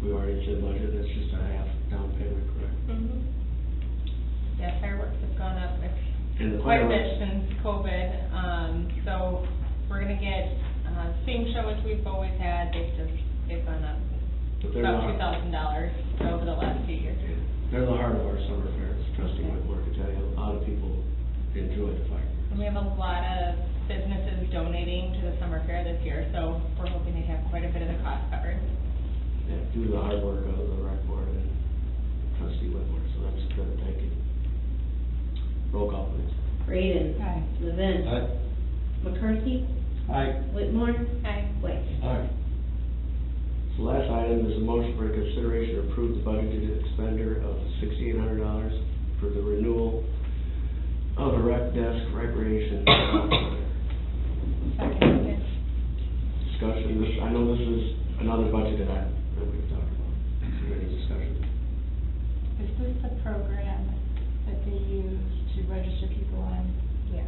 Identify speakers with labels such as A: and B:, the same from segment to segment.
A: to the budget, that's just a half down payment, correct?
B: Mhm. Mm-hmm. Yeah, fireworks have gone up
A: And the
B: quite a
A: fireworks-
B: bit since COVID, um, so we're gonna get, uh, same show as we've always had, they've just, they've gone up
A: But they're
B: about two
A: the,
B: thousand dollars over the last few years.
A: they're the heart of our summer fairs, trustee Whitmore could tell you, a lot of people enjoy the fireworks.
B: And we have a lot of businesses donating to the summer fair this year, so we're hoping to have quite a bit of the cost covered.
A: Yeah, do the hard work of the rec board and trustee Whitmore, so that's good, thank you. Roll call please.
C: Braden.
B: Aye.
C: Levin. McCarthy.
A: Aye.
C: Whitmore.
B: Aye.
C: White.
A: Aye. So last item is a motion for consideration to approve the budgeted expender of sixty-eight hundred dollars for the renewal of the rec desk recreation software.
B: Second.
A: Discussion, this, I know this is another budget item that we've talked about. Is there any discussion?
D: Is this the program that they use to register people on,
B: Yeah.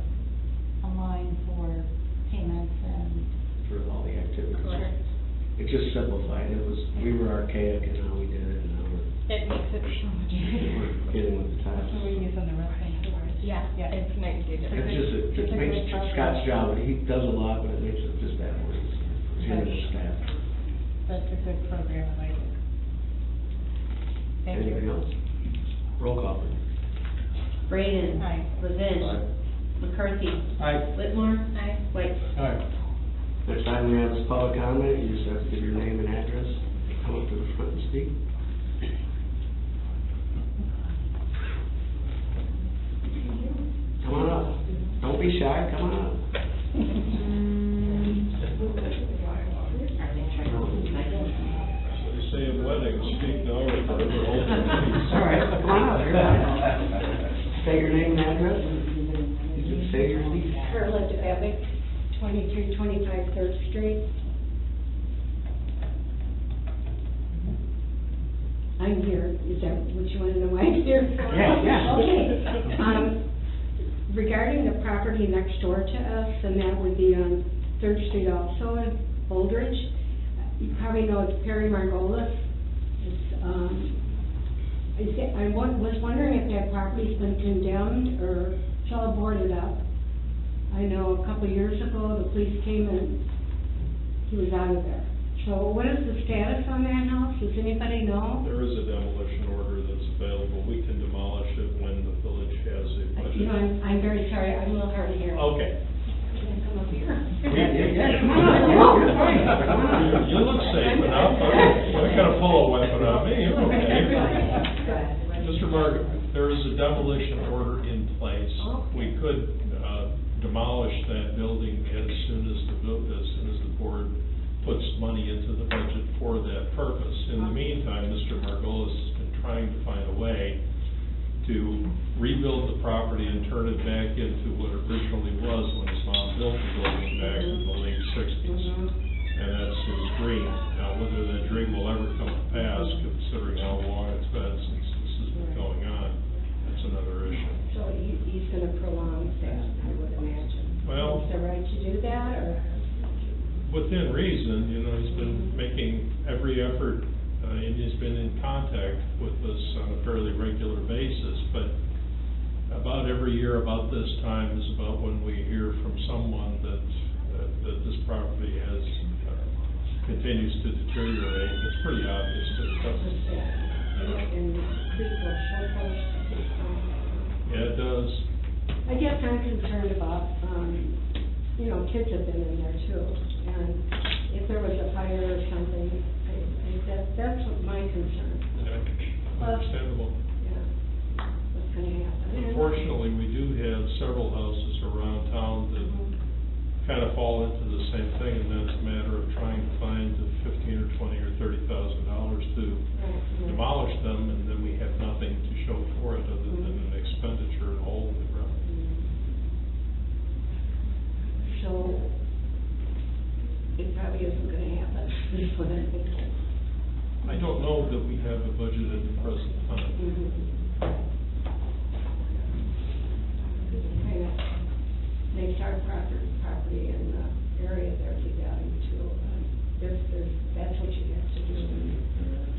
D: online for payments and?
A: For all the activities.
B: Correct.
A: It just simplified, it was, we were archaic in how we did it, and now we're,
B: It makes it so much easier.
A: we're getting with the
D: That's
A: times.
D: what we use on the wrestling course.
B: Yeah,
D: Yeah.
B: it's nice to do.
A: It's just, it just makes Scott's job, he does a lot, but it makes it just that much easier. Him and his staff.
D: That's a good program, I like it.
B: Thank you.
A: Anything else? Roll call, please.
C: Braden.
B: Aye.
C: Levin. McCarthy.
A: Aye.
C: Whitmore.
B: Aye.
C: White.
A: Next time we have this public comment, you just have to give your name and address, come up to the front and speak. Come on up, don't be shy, come on up.
E: They say at weddings, speak now or forever hold your peace.
A: All right, come on up, you're up. Say your name and address, and you can say your piece.
F: Carla Dweck, twenty-three twenty-five Third Street. I'm here, is that what you want to know why I'm here? for?
A: Yeah, yeah.
F: Okay, um, regarding the property next door to us, and that would be on Third Street also, in Holdridge, you probably know it's Perry Margolis, it's, um, is it, I wa- was wondering if that property's been condemned or it's all boarded up. I know a couple of years ago, the police came and he was out of there. So what is the status on that house? Does anybody know?
E: There is a demolition order that's available. We can demolish it when the village has a
F: I- You
E: budget.
F: know, I'm, I'm very sorry, I'm a little hard of hearing.
E: Okay.
F: Can I Come up here.
E: You you look safe enough. I'm not gonna pull a weapon on me. You're okay. Mr. Margaret, there is a demolition order in place. We could uh, demolish that building as soon as the, vil- as soon as the board puts money into the budget for that purpose. In the meantime, Mr. Margolis has been trying to find a way to rebuild the property and turn it back into what it originally was when his mom built the building back in the late sixties. And that's his dream. Now, whether that dream will ever come to pass, considering how long it's been since this has been going on, that's another issue.
F: So he, he's gonna prolong that, I would imagine.
E: Well-
F: Is it right to do that, or?
E: Within reason, you know, he's been making every effort, uh, and he's been in contact with us on a fairly regular basis, but about every year about this time is about when we hear from someone that, that- that this property has, uh, continues to deteriorate. It's pretty obvious that it doesn't.
F: And people, show
E: Yeah, it does.
F: I guess I'm concerned about, um, you know, kids have been in there too, and if there was a fire or something, I, I, that, that's what my concern,
E: Yeah, Understandable.
F: yeah, what's gonna happen.
E: Unfortunately, we do have several houses around town that
F: Mm-hmm.
E: kind of fall into the same thing, and that's a matter of trying to find the fifteen or twenty or thirty thousand dollars to
F: Right,
E: demolish them, and then we have nothing to show for it other than an expenditure and hole in the ground.
F: right. So, it probably isn't gonna happen, is what I'm thinking.
E: I don't know that we have a budget at the present time.
F: Kind of makes our property, property in oh the area there devalued too, but if there's, that's what you have to do.